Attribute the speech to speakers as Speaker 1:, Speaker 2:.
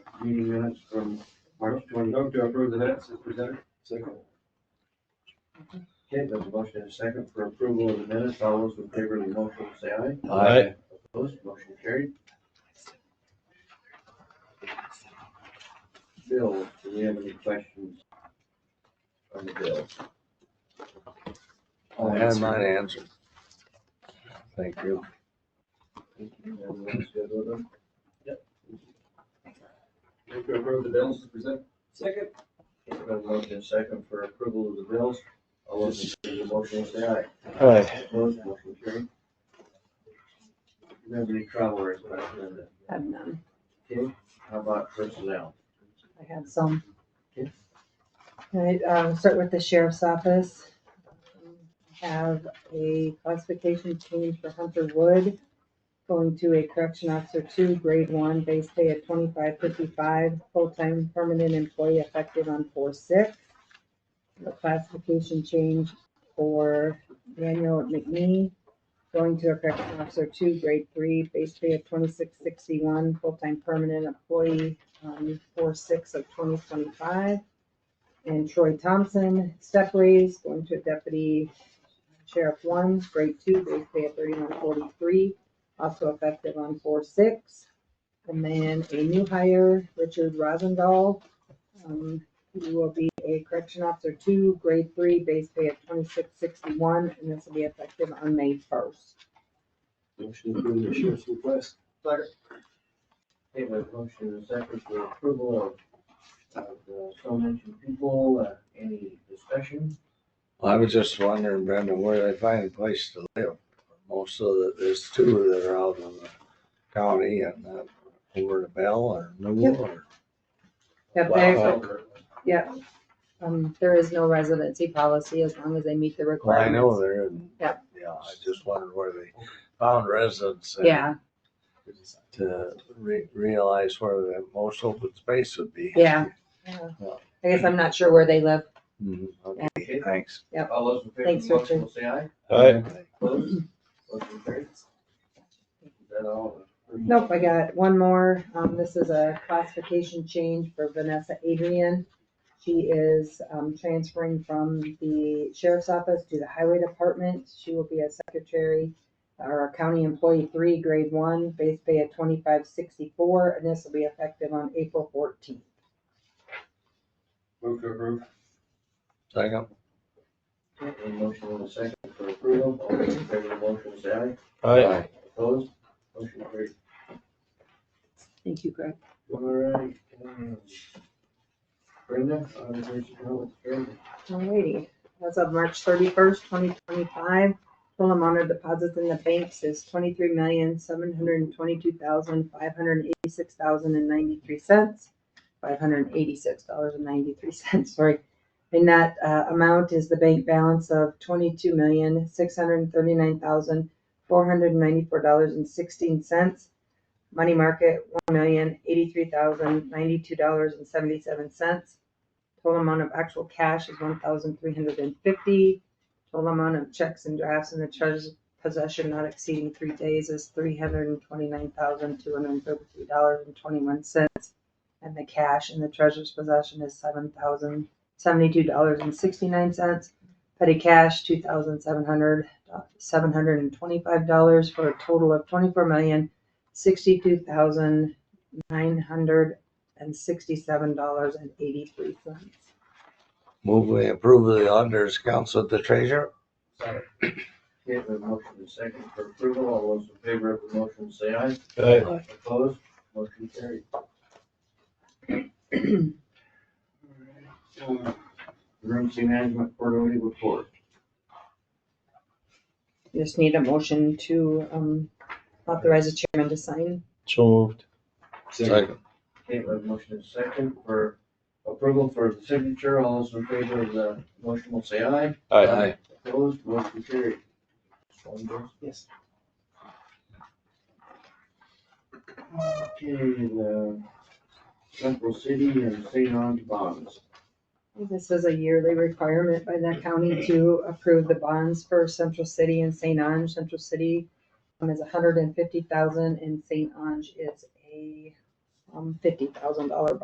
Speaker 1: meeting minutes from March twenty.
Speaker 2: Move to approve the minutes as presented.
Speaker 1: Second. Okay, there's a motion and a second for approval of the minutes. All those in favor of the motion, say aye.
Speaker 3: Aye.
Speaker 1: Opposed, motion carried. Bill, do we have any questions on the bill?
Speaker 3: I had mine answered. Thank you.
Speaker 1: Everyone's good with them?
Speaker 2: Move to approve the bills as presented. Second.
Speaker 1: Okay, there's a motion and a second for approval of the bills. All those in favor of the motion, say aye.
Speaker 3: Aye.
Speaker 1: Opposed, motion carried. Do you have any travel requests, Linda?
Speaker 4: Have none.
Speaker 1: Okay, how about personnel?
Speaker 4: I have some.
Speaker 1: Okay.
Speaker 4: All right, um, start with the sheriff's office. Have a classification change for Hunter Wood, going to a correction officer two, grade one, base pay at twenty-five fifty-five, full-time permanent employee effective on four six. The classification change for Daniel McNee, going to a correction officer two, grade three, base pay at twenty-six sixty-one, full-time permanent employee um, four, six of twenty twenty-five. And Troy Thompson, step raise, going to deputy sheriff one, grade two, base pay at thirty-one forty-three, also effective on four, six. And then a new hire, Richard Rosendahl, um, who will be a correction officer two, grade three, base pay at twenty-six sixty-one, and this will be effective on May first.
Speaker 1: Motion to approve the sheriff's request.
Speaker 2: Second.
Speaker 1: Okay, we have a motion and a second for approval of, of the so mentioned people, uh, any discussion?
Speaker 3: I was just wondering, Brenda, where they find a place to live. Most of the, there's two that are out in the county and uh, over to Bell or Newell or.
Speaker 4: Step back, yeah, um, there is no residency policy as long as they meet the
Speaker 3: Well,
Speaker 4: requirements.
Speaker 3: I know they're in.
Speaker 4: Yep.
Speaker 3: Yeah, I just wondered where they found residents. and
Speaker 4: Yeah,
Speaker 3: To re- realize where the most open space would be.
Speaker 4: yeah. I guess I'm not sure where they live.
Speaker 3: Mhm, Okay, thanks.
Speaker 1: All those in favor of
Speaker 4: Thanks,
Speaker 1: the motion
Speaker 4: Richard.
Speaker 1: will say aye. Opposed? Motion carries. Is that all?
Speaker 4: Nope, I got one more. Um, this is a classification change for Vanessa Adrian. She is, um, transferring from the sheriff's office to the highway department. She will be a secretary or a county employee three, grade one, base pay at twenty-five sixty-four, and this will be effective on April fourteenth.
Speaker 2: Move to approve.
Speaker 3: Second.
Speaker 1: A motion and a second for approval. All those in favor of the motion will say aye.
Speaker 3: Aye.
Speaker 1: Opposed? Motion carries.
Speaker 4: Thank you, Greg.
Speaker 1: All right. um, Brenda, uh, auditor's note, Brenda.
Speaker 4: Alrighty, as of March thirty-first, twenty twenty-five, total amount of deposits in the banks is twenty-three million, seven hundred and twenty-two thousand, five hundred and eighty-six thousand and ninety-three cents. Five hundred and eighty-six dollars and ninety-three cents, sorry. And that, uh, amount is the bank balance of twenty-two million, six hundred and thirty-nine thousand, four hundred and ninety-four dollars and sixteen cents. Money market, one million, eighty-three thousand, ninety-two dollars and seventy-seven cents. Total amount of actual cash is one thousand three hundred and fifty. Total amount of checks and drafts in the treasurer's possession not exceeding three days is three hundred and twenty-nine thousand two hundred and thirty-three dollars and twenty-one cents. And the cash in the treasurer's possession is seven thousand seventy-two dollars and sixty-nine cents. Petty cash, two thousand seven hundred, seven hundred and twenty-five dollars for a total of twenty-four million sixty-two thousand nine hundred and sixty-seven dollars and eighty-three cents.
Speaker 3: Move we approve of the auditor's accounts with the treasurer.
Speaker 1: Second. Okay, we have a motion and a second for approval. All those in favor of the motion, say aye. Opposed? Motion carried. Um, Emergency management quarterly report.
Speaker 4: You Just need a motion to um, authorize the chairman to sign.
Speaker 5: So moved.
Speaker 3: Second.
Speaker 1: Okay, we have a motion and a second for approval for the signature. All those in favor of the motion will say aye.
Speaker 3: Aye.
Speaker 1: Opposed? Motion carried. One vote.
Speaker 4: Yes.
Speaker 1: Okay, the Central City and St. John's bonds.
Speaker 4: This is a yearly requirement by the county to approve the bonds for Central City and St. Ange. Central City um, is $150,000 and St. Ange is a, um, fifty thousand dollar